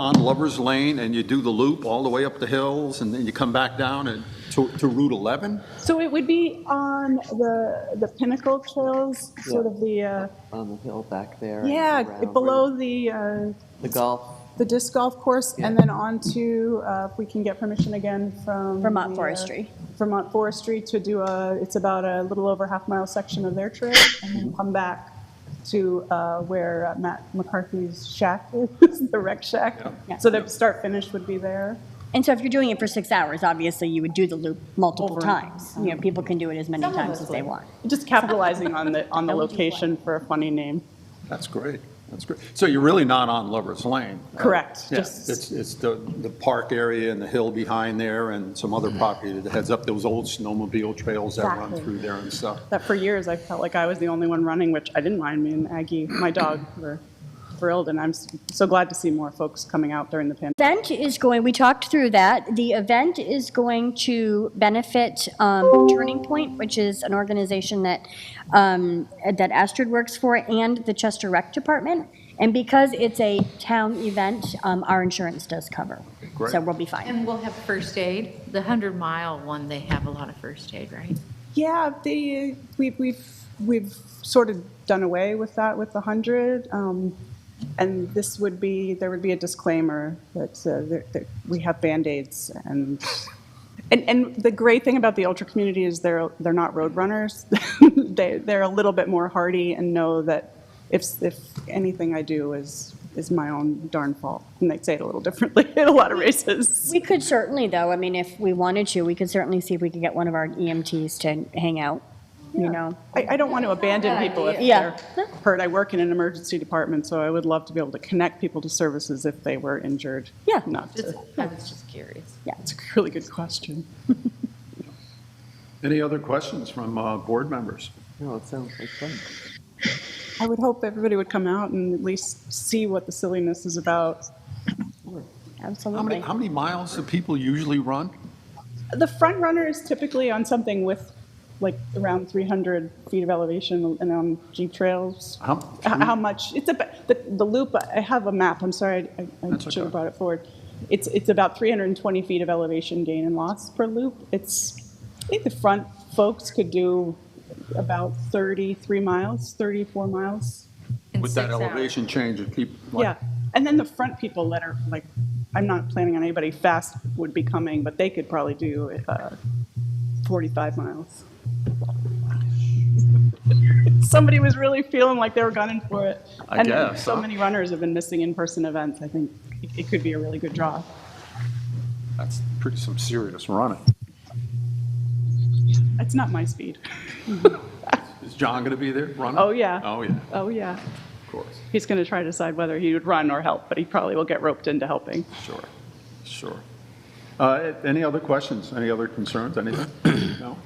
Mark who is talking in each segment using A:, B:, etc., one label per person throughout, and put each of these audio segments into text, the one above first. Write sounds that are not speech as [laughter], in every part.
A: on Lover's Lane and you do the loop all the way up the hills and then you come back down and to, to Route 11?
B: So it would be on the, the pinnacle trails, sort of the, uh,
C: on the hill back there. and
B: yeah,
C: around
B: below the, uh,
C: The golf,
B: the disc golf course, and then on to, uh, if we can get permission again from.
D: Vermont
B: the, uh,
D: Forestry.
B: Vermont Forestry to do a, it's about a little over half mile section of their trail, and then come back to uh, where uh, Matt McCarthy's shack [laughs] is, the rec shack.
D: Yeah.
B: So the start finish would be there.
D: And so if you're doing it for six hours, obviously you would do the loop multiple
B: Over.
D: times. You know, people can do it as many
B: Some of
D: times
B: us
D: as they
B: would.
D: want.
B: Just capitalizing on the, on the
D: That would be fun.
B: location for a funny name.
A: That's great, that's great. So you're really not on Lover's Lane? right?
B: Correct,
A: Yeah,
B: just-
A: it's, it's the, the park area and the hill behind there and some other property that heads up those old snowmobile trails that run
B: Exactly.
A: through there and stuff.
B: That for years I felt like I was the only one running, which I didn't mind. Me and Aggie, my dog, were thrilled, and I'm s- so glad to see more folks coming out during the pandemic.
D: Event is going, we talked through that. The event is going to benefit um, Turning Point, which is an organization that, um, that Astrid works for, and the Chester Rec Department. And because it's a town event, um, our insurance does cover.
A: Great.
D: So we'll be fine.
E: And we'll have first aid. The 100 mile one, they have a lot of first aid, right?
B: Yeah, they we've we've we've sort of done away with that with the hundred, um, and this would be there would be a disclaimer that, uh, that, that we have band aids and. And, and the great thing about the ultra community is they're they're not road runners. [laughs] they they're a little bit more hardy and know that if if anything I do is is my own darn fault, and they say it a little differently [laughs] at a lot of races.
D: We could certainly, though, I mean, if we wanted to, we could certainly see if we could get one of our EMTs to hang out, you know?
B: I, I don't want to abandon people if
D: Yeah.
B: they're hurt. I work in an emergency department, so I would love to be able to connect people to services if they were injured.
D: Yeah.
B: Not
E: Just-
B: to,
E: I was just curious.
B: that's a really good question.
A: Any other questions from uh, board members?
C: no, it sounds like fun.
B: I would hope everybody would come out and at least see what the silliness is about.
A: How many,
D: Absolutely.
A: how many miles do people usually run?
B: The front runner is typically on something with like around 300 feet of elevation and on jeep trails.
A: How-
B: H- How much, it's about, the, the loop, I have a map, I'm sorry, I- I
A: That's
B: should have
A: okay.
B: brought it forward. It's, it's about 320 feet of elevation gain and loss per loop. It's, I think the front folks could do about 33 miles, 34 miles. Uh,
E: In
A: With that
E: six hours.
A: elevation change, if people,
B: Yeah,
A: like,
B: and then the front people that are, like, I'm not planning on anybody fast would be coming, but they could probably do uh, 45 miles. Somebody was really feeling like they were gunning for it.
A: I
B: And
A: guess,
B: So
A: huh?
B: many runners have been missing in-person events, I think it- it could be a really good draw.
A: that's pretty some serious running.
B: That's not my speed.
A: Is John going to be there running?
B: Oh, yeah.
A: Oh, yeah,
B: Oh, yeah.
A: of course.
B: He's going to try to decide whether he would run or help, but he probably will get roped into helping.
A: Sure, sure. Uh, Any other questions, any other concerns, anything? No?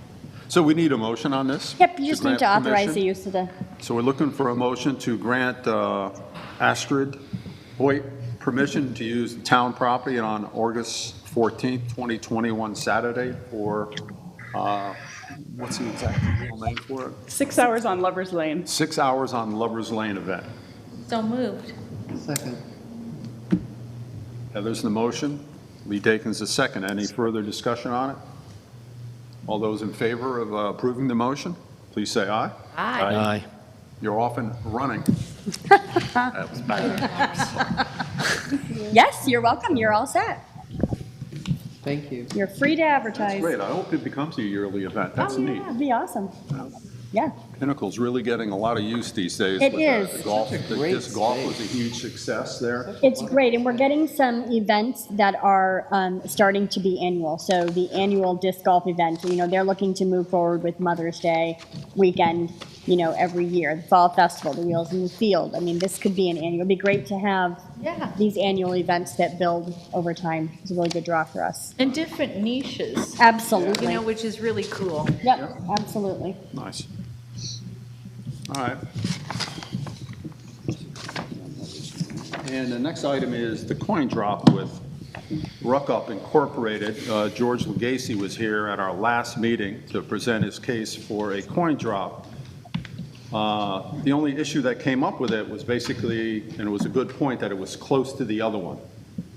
A: So we need a motion on this?
D: Yep, you just need
A: grant
D: to authorize the
A: permission?
D: use of the,
A: So we're looking for a motion to grant uh, Astrid Hoyt permission to use town property on August 14th, 2021, Saturday, for, uh, what's the exact real name for it?
B: Six hours on Lover's Lane.
A: Six Hours on Lover's Lane event.
E: So moved.
C: Second.
A: Heather's the motion. Lee Dakin's the second. Any further discussion on it? All those in favor of uh, approving the motion, please say aye.
E: Aye.
A: You're off and running. That was bad.
D: yes, you're welcome, you're all set.
C: Thank you.
D: You're free to advertise.
A: Great. I hope it becomes a yearly event. That's
E: Oh,
A: neat.
D: That'd be awesome. Yeah,
A: Pinnacle's really getting a lot of use these days.
D: It
A: with the-
D: is.
A: The golf, the
C: Such a great
A: disc golf
C: space.
A: was a huge success there.
D: it's great, and we're getting some events that are um, starting to be annual. So the annual disc golf event, you know, they're looking to move forward with Mother's Day weekend, you know, every year. The Fall Festival, the Wheels in the Field. I mean, this could be an annual, it'd be great to have
E: Yeah.
D: these annual events that build over time. It's a really good draw for us.
E: And different niches, you know,
D: Absolutely.
E: which is really cool.
D: Yep, absolutely.
A: Nice. All right. And the next item is the coin drop with Ruckup Incorporated. Uh, George Legacy was here at our last meeting to present his case for a coin drop. Uh, The only issue that came up with it was basically, and it was a good point, that it was close to the other one.